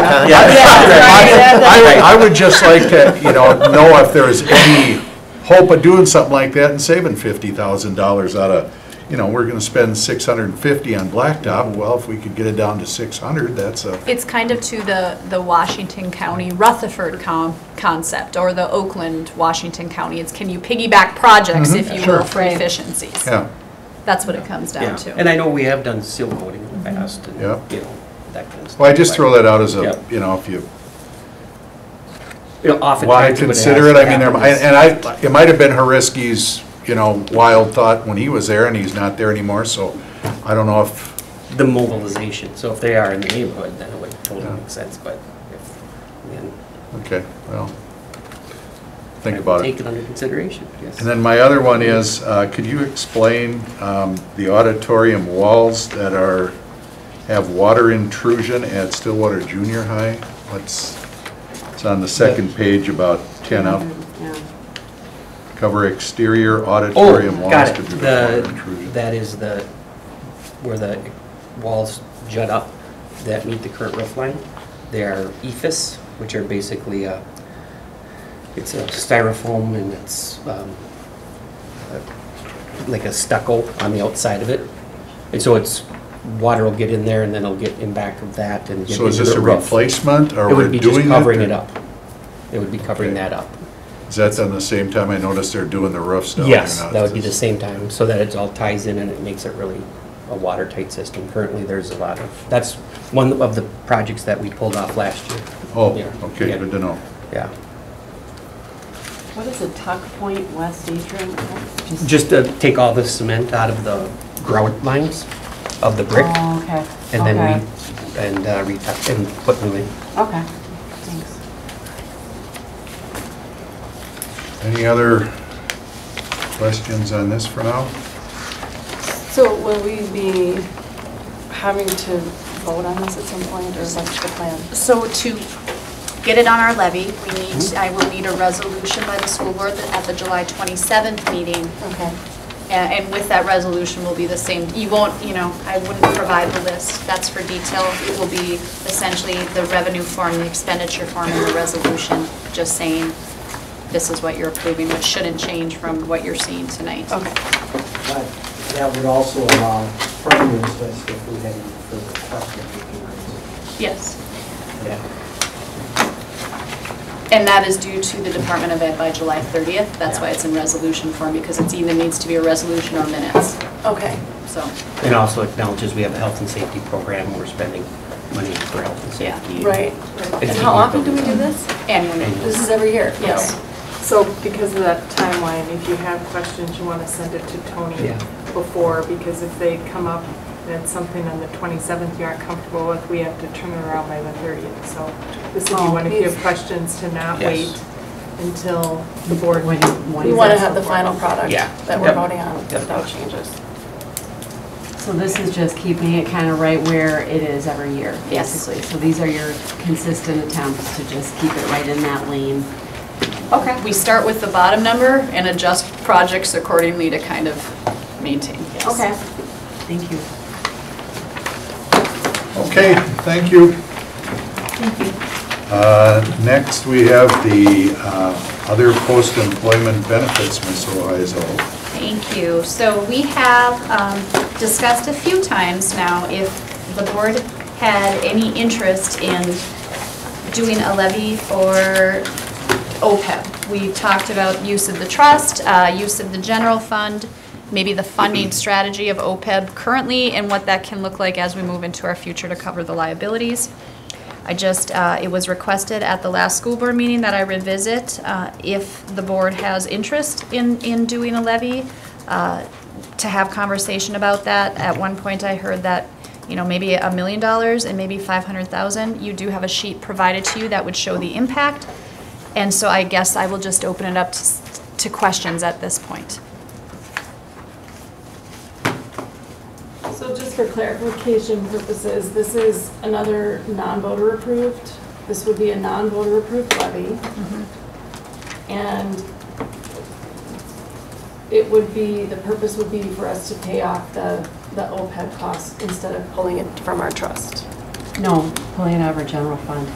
Yeah, I- I I would just like to, you know, know if there is any hope of doing something like that and saving fifty thousand dollars out of, you know, we're gonna spend six hundred and fifty on blacktop, well, if we could get it down to six hundred, that's a, It's kind of to the, the Washington County Rutherford com, concept, or the Oakland, Washington County. It's can you piggyback Mm-hmm. projects, if you will, for efficiencies? yeah, That's what it comes down Yeah, and to. I know we have done seal coating in the past, and, Yeah. you know, that kind of stuff. well, I just throw that out as a, Yep. you know, if you You know, oftentimes Why what consider it, has I mean, there- happened is- and I, it might have been Horiski's, you know, wild thought when he was there, and he's not there anymore, so I don't know if, the mobilization, so if they are in the neighborhood, then it would totally make sense, but if, then. okay, well, think I would about it. Take it under consideration, yes. And then my other one is, uh, could you explain um, the auditorium walls that are, have water intrusion at Stillwater Junior High? What's, it's on the second page about 10 up. Cover exterior auditorium Oh, walls got to it, prevent water the, intrusion. that is the, where the walls jut up that meet the current roof line. They are E EFIS, which are basically, uh, it's a styrofoam and it's, um, uh, like a stucco on the outside of it. And so it's, water will get in there and then it'll get in back of that and get So is into this the a roof. replacement, or It we're would be just doing it? covering it up. It would be covering Okay. that up. Is that on the same time I noticed they're doing the roofs down? there Yes, now? that would be the same time, so that it all ties in and it makes it really a watertight system. Currently, there's a lot of, that's one of the projects that we pulled off last year. Oh, Yeah. okay, good to know. Yeah, What is a tuck point west atrium? just to take all the cement out of the grout lines of the brick, Oh, okay. and then Okay. we, and uh, retuck, and put new in. Okay, thanks. Any other questions on this for now? So will we be having to vote on this at some point, or is that the plan? So to get it on our levy, we need, I will need a resolution by the school board at the July 27th meeting. Okay. A- And with that resolution will be the same, you won't, you know, I wouldn't provide the list, that's for detail. It will be essentially the revenue form, the expenditure form, and the resolution, just saying this is what you're approving, which shouldn't change from what you're seeing tonight. Okay, But that would also allow further discussion if we had any further questions. we can raise. Yes. Yeah. And that is due to the Department of Ed by July 30th. That's why it's in resolution form, because it either needs to be a resolution or minutes, okay. so, And also acknowledges we have a health and safety program, we're spending money for health and Yeah. safety. Right. And how often do we do this? annual This meeting. is every year? Yes. So because of that timeline, if you have questions, you want to send it to Tony Yeah. before, because if they come up and it's um, something on the 27th you aren't comfortable with, we have to turn it around by the 30th. So this is, you Oh, want to give yes. questions to not Yes. wait until the board. When- when We is want to that? have the final product Yeah. that we're Yep. voting on Yep. without changes. So this is just keeping it kind of right where it is every year, Yes. basically. So these are your consistent attempts to just keep it right in that lane. Okay. We start with the bottom number and adjust projects accordingly to kind of maintain. yes. Thank you. Okay, thank you. Thank you. Next, we have the uh, other post-employment benefits, Ms. Oizel. Thank you. So we have um, discussed a few times now if the board had any interest in doing a levy for OPEB. We talked about use of the trust, uh, use of the general fund, maybe the funding strategy of OPEB currently, and what that can look like as we move into our future to cover the liabilities. I just, uh, it was requested at the last school board meeting that I revisit uh, if the board has interest in, in doing a levy, uh, to have conversation about that. At one point, I heard that, you know, maybe a million dollars and maybe 500,000. You do have a sheet provided to you that would show the impact. And so I guess I will just open it up to s- to questions at this point. So just for clarification purposes, this is another non-voter approved, this would be a non-voter approved levy. And it would be, the purpose would be for us to pay off the, the OPEB costs instead of pulling it from our trust. No, pulling it out of our general fund.